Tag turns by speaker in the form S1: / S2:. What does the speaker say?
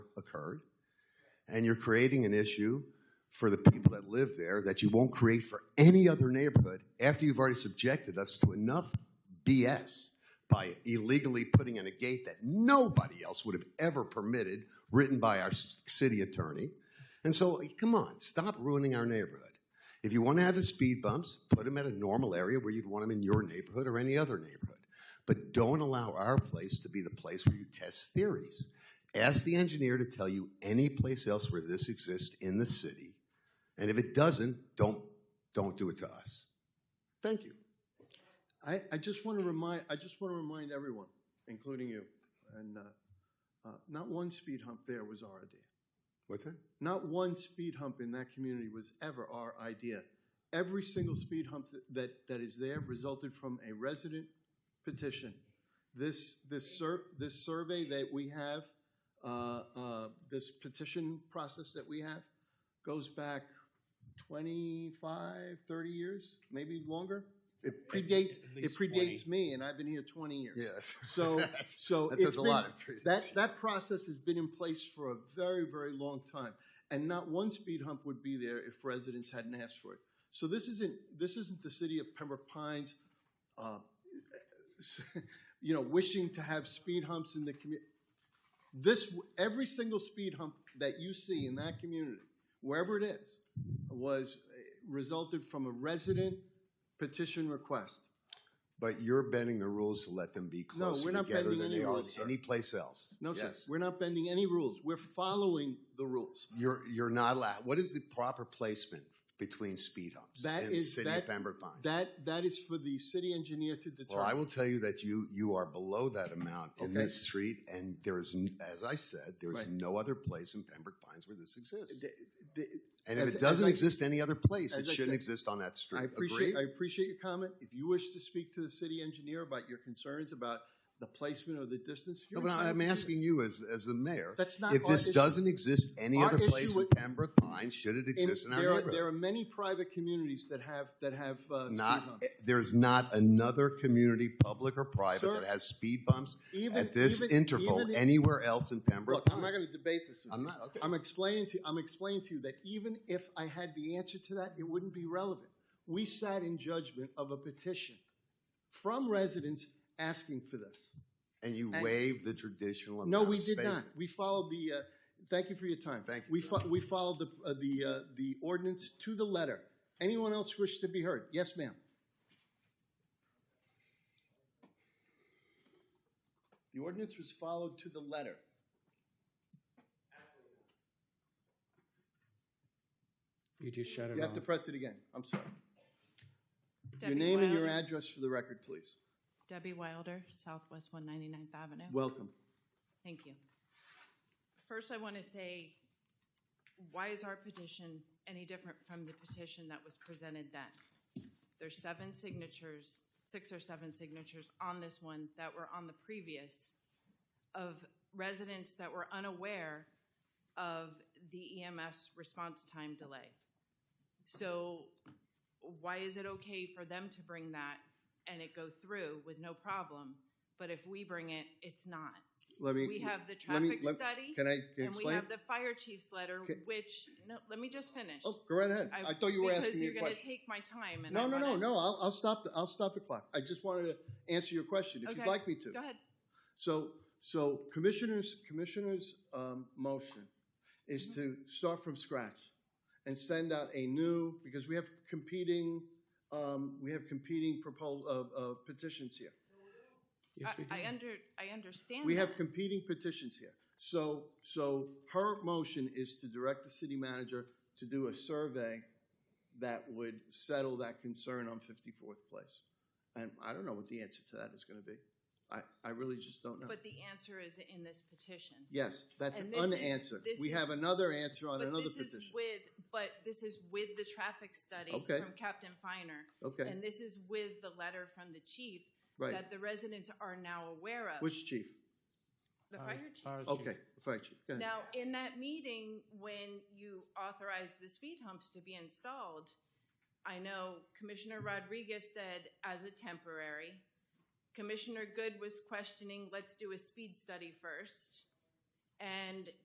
S1: occurred, and you're creating an issue for the people that live there that you won't create for any other neighborhood after you've already subjected us to enough BS by illegally putting in a gate that nobody else would have ever permitted, written by our s- city attorney. And so, come on, stop ruining our neighborhood. If you want to have the speed bumps, put them at a normal area where you'd want them in your neighborhood or any other neighborhood. But don't allow our place to be the place where you test theories. Ask the engineer to tell you any place else where this exists in the city. And if it doesn't, don't, don't do it to us. Thank you.
S2: I, I just want to remind, I just want to remind everyone, including you, and uh, uh, not one speed hump there was our idea.
S1: What's that?
S2: Not one speed hump in that community was ever our idea. Every single speed hump that, that, that is there resulted from a resident petition. This, this sur, this survey that we have, uh, uh, this petition process that we have goes back 25, 30 years, maybe longer. It predates,
S3: At
S2: it
S3: least 20.
S2: predates me and I've been here 20 years.
S1: Yes.
S2: So,
S1: That's-
S2: so
S1: That
S2: it's
S1: says a
S2: been-
S1: lot. of prudence.
S2: that, that process has been in place for a very, very long time. And not one speed hump would be there if residents hadn't asked for it. So this isn't, this isn't the city of Pembroke Pines, uh, you know, wishing to have speed humps in the community. This, every single speed hump that you see in that community, wherever it is, was, eh, resulted from a resident petition request.
S1: But you're bending the rules to let them be closer
S2: we're not
S1: together
S2: bending
S1: than
S2: any
S1: they are
S2: rules, sir.
S1: any place else.
S2: No, sir,
S1: Yes.
S2: we're not bending any rules. We're following the rules.
S1: You're, you're not allowed, what is the proper placement between speed humps
S2: That
S1: in the
S2: is-
S1: city of
S2: that-
S1: Pembroke Pines?
S2: That, that is for the city engineer to determine.
S1: Well, I will tell you that you, you are below that amount in
S2: Okay.
S1: this street, and there is, n- as I said, there is
S2: Right.
S1: no other place in Pembroke Pines where this exists.
S2: The- the-
S1: And if
S2: as-
S1: it
S2: as
S1: doesn't
S2: I-
S1: exist any other place, it
S2: as I
S1: shouldn't
S2: said,
S1: exist on that
S2: I
S1: street.
S2: appreciate, I
S1: Agree?
S2: appreciate your comment. If you wish to speak to the city engineer about your concerns about the placement or the distance.
S1: No,
S2: you're
S1: but I-
S2: entitled
S1: I'm
S2: to do that.
S1: asking you as, as the mayor,
S2: That's not
S1: if
S2: our
S1: this
S2: issue.
S1: doesn't exist any
S2: Our
S1: other
S2: issue
S1: place in
S2: with-
S1: Pembroke Pines, should it
S2: In-
S1: exist in our
S2: there are-
S1: neighborhood?
S2: There are many private communities that have, that have, uh, speed
S1: Not,
S2: humps.
S1: there's not another community, public or private,
S2: Sir,
S1: that has speed bumps
S2: Even-
S1: at this
S2: even-
S1: interval
S2: even if-
S1: anywhere else in Pembroke
S2: Look, I'm not
S1: Pines.
S2: gonna debate this with
S1: I'm
S2: you.
S1: not, okay.
S2: I'm explaining to, I'm explaining to you that even if I had the answer to that, it wouldn't be relevant. We sat in judgment of a petition from residents asking for this.
S1: And you
S2: and-
S1: waive the traditional
S2: No,
S1: amount
S2: we
S1: of
S2: did not.
S1: spacing.
S2: We followed the, uh, thank you for your time.
S1: Thank you,
S2: We fo- we followed the, uh, the, uh, the ordinance to the letter. Anyone else wish to be heard? Yes, ma'am. The ordinance was followed to the letter.
S3: You just shut it
S2: You have
S3: off.
S2: to press it again. I'm sorry. Your
S4: Debbie
S2: name and your
S4: Wilder.
S2: address for the record, please.
S4: Debbie Wilder, Southwest 199th Avenue.
S2: Welcome.
S4: Thank you. First, I want to say, why is our petition any different from the petition that was presented then? There's seven signatures, six or seven signatures on this one that were on the previous of residents that were unaware of the EMS response time delay. So why is it okay for them to bring that and it go through with no problem? But if we bring it, it's not.
S2: Let me.
S4: We have the
S2: let me-
S4: traffic
S2: let-
S4: study,
S2: Can I can I
S4: and we
S2: explain?
S4: have the fire chief's letter,
S2: Can-
S4: which, no, let me just finish.
S2: Oh, go right ahead.
S4: I-
S2: I thought you were asking me a
S4: Because you're gonna
S2: question.
S4: take my time, and I
S2: No, no, no,
S4: wanna-
S2: no, I'll, I'll stop, the I'll stop the clock. I just wanted to answer your question, if you'd
S4: Okay.
S2: like me to.
S4: Go ahead.
S2: So, so Commissioner's, Commissioner's, um, motion is to start from scratch and send out a new, because we have competing, um, we have competing propos, of, of petitions here.
S3: Yes, we
S4: I, I
S3: do.
S4: under, I understand
S2: We have
S4: that.
S2: competing petitions here. So, so her motion is to direct the city manager to do a survey that would settle that concern on fifty-fourth place. And I don't know what the answer to that is gonna be. I, I really just don't know.
S4: But the answer is in this petition.
S2: Yes, that's
S4: And this is-
S2: unanswered.
S4: this
S2: We
S4: is-
S2: have another answer on
S4: But
S2: another
S4: this is
S2: petition.
S4: with, but this is with the traffic study
S2: Okay.
S4: from Captain Finer,
S2: Okay,
S4: and this is with the letter from the chief
S2: right.
S4: that the residents are now aware of.
S2: Which chief?
S4: The
S3: Fire-
S4: fire chief.
S3: fire
S2: Okay, fire chief, go ahead.
S4: Now, in that meeting, when you authorized the speed humps to be installed, I know Commissioner Rodriguez said as a temporary. Commissioner Good was questioning, let's do a speed study first. And